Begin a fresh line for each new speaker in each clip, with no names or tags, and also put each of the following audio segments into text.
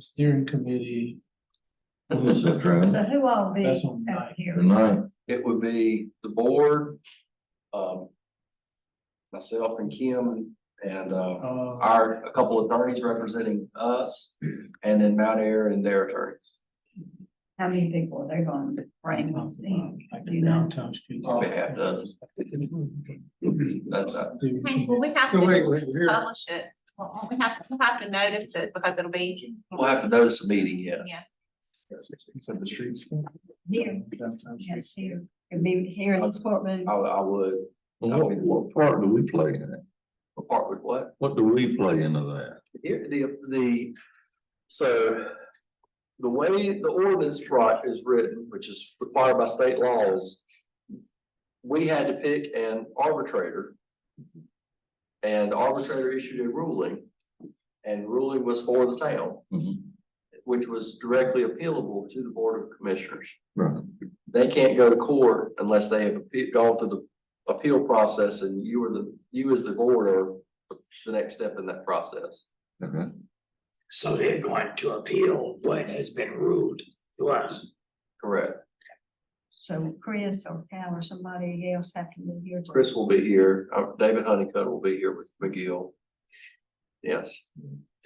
steering committee,
Is that true?
So who all be
That's on
up
night.
here?
Tonight,
It would be the board, um. Myself and Kim and, uh,
uh,
our, a couple of attorneys representing us, and then Mount Air and their attorneys.
How many people are they going to bring on
um,
in?
like
You
the
know,
downtown streets.
Probably half dozen. That's, uh,
Do you-
Well, we have to publish it, Well, we have, we have to notice it because it'll be,
we'll have to notice a meeting, yes.
Yeah.
Except the streets.
Here.
Downtown
yes,
streets.
here, it'd be here in this courtroom,
I, I would,
Well, what, what part do we play in it?
apart with what?
What do we play into that?
Here, the, the, so. The way the ordinance right is written, which is required by state law is. We had to pick an arbitrator. And the arbitrator issued a ruling. And ruling was for the town,
Mhm,
which was directly appealable to the Board of Commissioners.
Right,
They can't go to court unless they have appe- gone through the appeal process and you are the, you as the board are. The next step in that process.
okay.
So they're going to appeal what has been ruled to us.
Correct.
so Chris or Cal or somebody else have to move here. to-
Chris will be here. Uh, David Honeycutt will be here with McGill. Yes,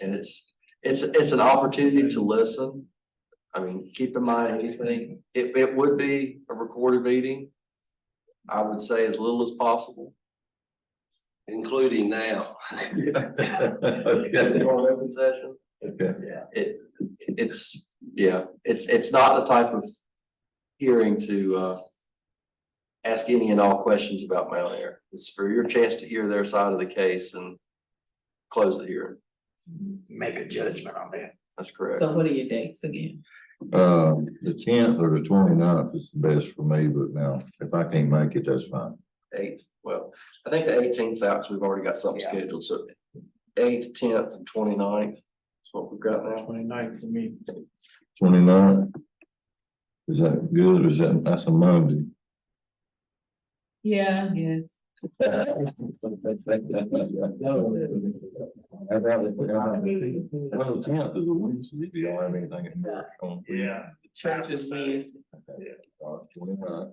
and it's, it's, it's an opportunity to listen. I mean, keep in mind anything, it, it would be a recorded meeting. I would say as little as possible.
Including now.
Okay,
On open session.
okay.
It, it's, yeah, it's, it's not the type of hearing to, uh, ask any and all questions about Mount Air. It's for your chance to hear their side of the case and close the hearing.
Make a judgment on that.
That's correct.
So what are your dates again?
Um, the tenth or the 29th is the best for me, but now, if I can't make it, that's fine.
Eighth, well, I think the eighteenth out, so we've already got something
Yeah.
scheduled, so eighth, tenth, and 29th is what we've got now.
Twenty-ninth for me.
29th. Is that good, or is that, that's a Monday?
Yeah. Yes.
Well, the tenth is a Wednesday, you don't have anything in there on.
Yeah.
Church is Wednesday.
Uh, 29th.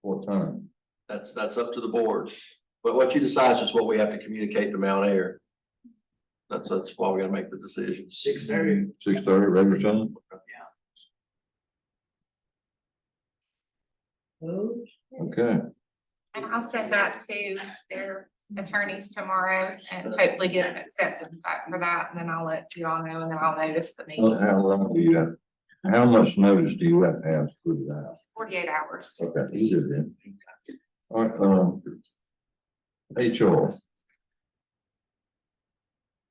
What time?
That's, that's up to the board, but what you decide is just what we have to communicate to Mount Air. That's, that's why we gotta make the decision.
Six thirty.
Six thirty, regular time? Okay,
and I'll send that to their attorneys tomorrow and hopefully get an acceptance back for that, and then I'll let you all know, and then I'll notice the
Well,
meeting.
how long do you have, how much notice do you have to have to put it out?
Forty-eight hours.
Okay, you do then. All right, um. HR.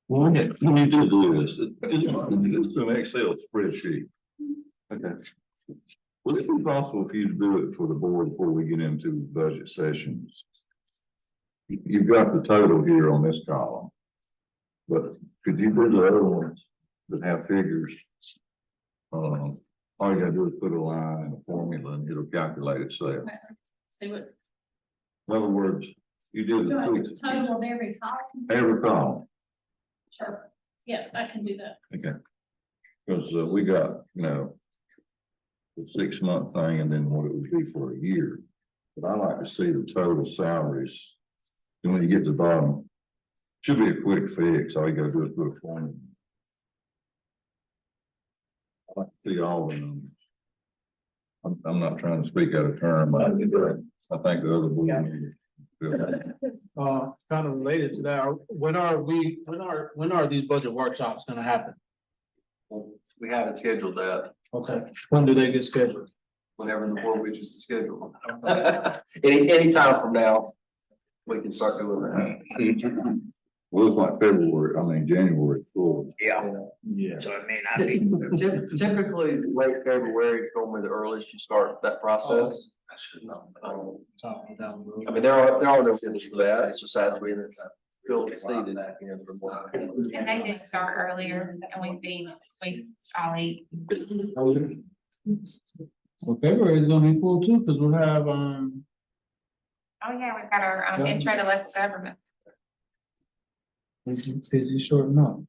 When you, when you do do this, it- it's, it's an Excel spreadsheet. Okay. Would it be possible for you to do it for the board before we get into budget sessions? You- You've got the total here on this column. But could you do the other ones that have figures? Um, all you gotta do is put a line and a formula and it'll calculate itself.
See what,
In other words, you do
do I
the.
total of every column?
Every column,
Sure. Yes, I can do that.
because uh, we got, you know. The six month thing and then what it would be for a year, but I like to see the total salaries. And when you get to the bottom, should be a quick fix, all you gotta do is put a formula. I like to see all the numbers. I'm, I'm not trying to speak out of turn, but I think the other board members.
Uh, kind of related to that, are- when are we, when are, when are these budget workshops gonna happen?
Well, We haven't scheduled that,
Okay, when do they get scheduled?
whenever the board reaches the schedule. Any, any time from now, we can start doing that.
Well, it's like February, I mean, January, full.
Yeah,
Yeah.
so it may not be.
Typ- Typically, late February is normally the earliest you start that process. Um, I should know.
Oh.
Top down the road.
I mean, there are, there are no rules for that, it's just as we, Bill just needed.
And they do start earlier, and we beat, we all eat.
Well, February is gonna be full too, because we'll have, um,
Oh, yeah, we've got our um, intro to less government.
busy, busy short month.